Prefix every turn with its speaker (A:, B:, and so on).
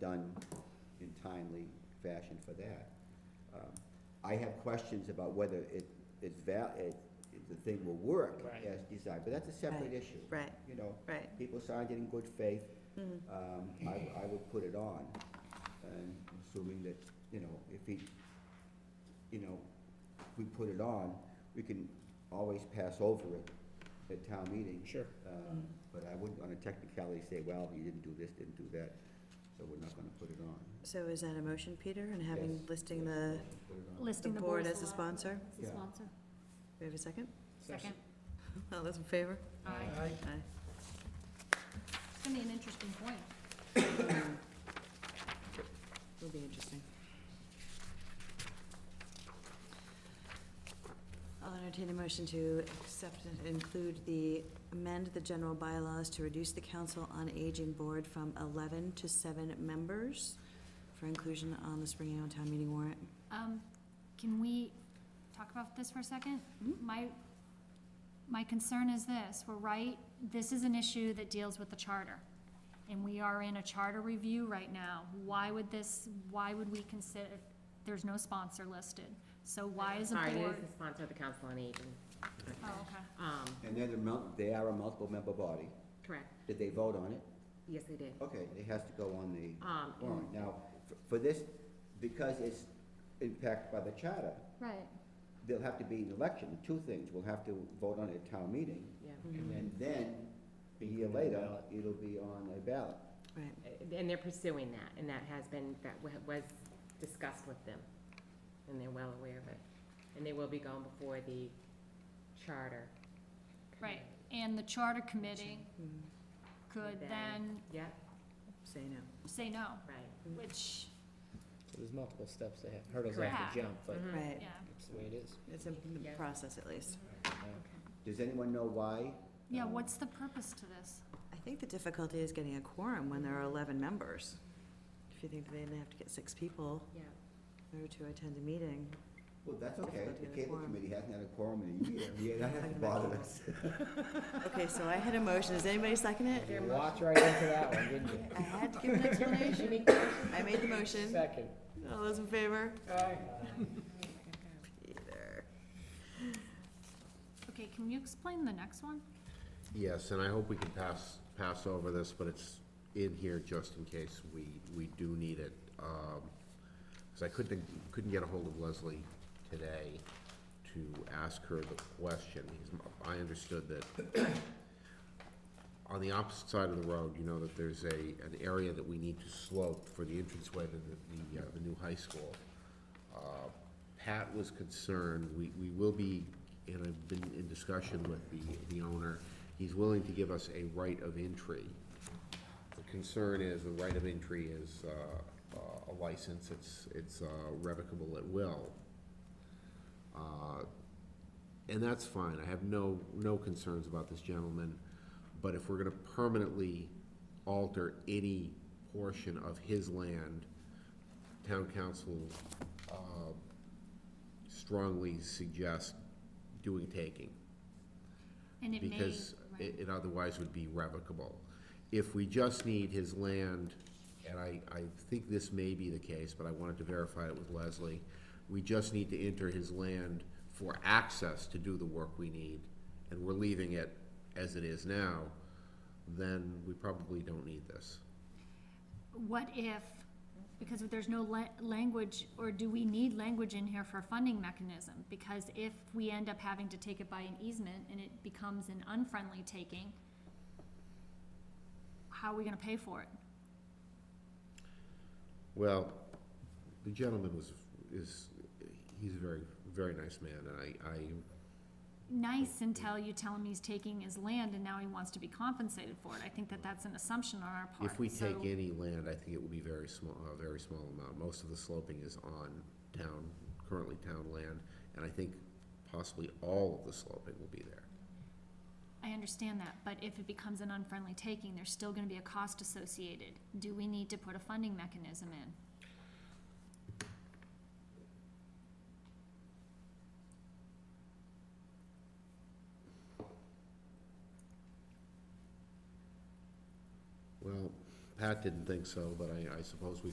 A: done in timely fashion for that. Um, I have questions about whether it, it's val, it, it- the thing will work
B: Right.
A: as designed, but that's a separate
C: Right.
A: issue.
C: Right,
A: You know,
C: right.
A: people signed it in good faith,
C: Mhm.
A: um, I, I would put it on, and assuming that, you know, if he, you know, if we put it on, we can always pass over it at town meeting.
B: Sure.
A: Um, But I wouldn't on a technicality say, well, you didn't do this, didn't do that, so we're not gonna put it on.
C: So is that a motion, Peter, and having,
A: Yes.
C: listing the,
A: Put it on.
C: the
D: Listing the
C: board as a sponsor?
D: As a
A: Yeah.
D: sponsor.
C: We have a second?
D: Second.
C: All those in favor?
D: Aye.
C: Aye.
D: It's gonna be an interesting point.
C: Will be interesting. I'll entertain a motion to accept and include the, amend the general bylaws to reduce the Council on Aging Board from eleven to seven members for inclusion on the spring annual town meeting warrant.
D: Um, can we talk about this for a second?
C: Mhm.
D: My, my concern is this, we're right, this is an issue that deals with the charter. And we are in a charter review right now. Why would this, why would we consider, there's no sponsor listed? So why is a board?
E: Sorry, it is the sponsor of the Council on Aging.
D: Oh, okay.
E: Um,
A: And then they're mul- they are a multiple-member body,
E: correct,
A: did they vote on it?
E: yes, they did.
A: Okay, it has to go on the
E: Um, and-
A: warrant. Now, f- for this, because it's impacted by the charter,
D: Right.
A: there'll have to be an election, two things, we'll have to vote on it at town meeting,
E: yeah.
A: and then, a year later, it'll be on a ballot.
C: Right,
E: Uh, And they're pursuing that, and that has been, that wa- was discussed with them, and they're well aware of it. And they will be going before the charter.
D: Right, and the charter committee
C: Mm,
D: could
E: Then-
D: then
E: Yeah,
C: say no.
D: say no,
E: right.
D: which,
B: There's multiple steps they have, hurdles they have to
D: Correct. Mm-hmm.
B: jump, but
E: Mhm.
C: Right,
D: yeah,
B: that's the way it is.
C: it's in the
E: Yeah.
C: process at least.
A: Does anyone know why?
D: yeah,
A: Um,
D: what's the purpose to this?
C: I think the difficulty is getting a quorum when there are eleven members. If you think they'd have to get six people
E: Yeah,
C: in order to attend a meeting.
A: Well, that's okay,
C: Difficulty
A: the
C: with
A: cable
C: quorum.
A: committee hasn't had a quorum in a year, yeah, that
C: Talking
A: hasn't
C: about
A: bothered us.
C: Okay, so I had a motion. Does anybody second it?
E: There
B: You
E: a
B: walked right into that one, didn't you?
C: I had to give an explanation. I made the motion.
B: Second.
C: All those in favor?
E: okay.
C: Peter.
D: Okay, can you explain the next one?
F: Yes, and I hope we can pass, pass over this, but it's in here just in case we, we do need it. Because I couldn't, couldn't get a hold of Leslie today to ask her the question. Because I understood that on the opposite side of the road, you know, that there's a, an area that we need to slope for the entranceway to the, the, uh, the new high school. Uh, Pat was concerned, we, we will be, and I've been in discussion with the, the owner, he's willing to give us a right of entry. The concern is, the right of entry is, uh, uh, a license, it's, it's uh, revocable at will. Uh, And that's fine, I have no, no concerns about this gentleman, but if we're gonna permanently alter any portion of his land, town council uh, strongly suggest doing taking,
D: And it may.
F: because
D: right.
F: it it otherwise would be revocable. If we just need his land, and I, I think this may be the case, but I wanted to verify it with Leslie, we just need to enter his land for access to do the work we need, and we're leaving it as it is now, then we probably don't need this.
D: What if, because there's no la- language, or do we need language in here for a funding mechanism? Because if we end up having to take it by an easement and it becomes an unfriendly taking, how are we gonna pay for it?
F: Well, the gentleman was, is, he's a very, very nice man, and I, I
D: Nice until you tell him he's taking his land and now he wants to be compensated for it. I think that that's an assumption on our part.
F: If we take
D: So-
F: any land, I think it will be very small, a very small amount. Most of the sloping is on town, currently town land, and I think possibly all of the sloping will be there.
D: I understand that, but if it becomes an unfriendly taking, there's still gonna be a cost associated. Do we need to put a funding mechanism in?
F: Well, Pat didn't think so, but I, I suppose we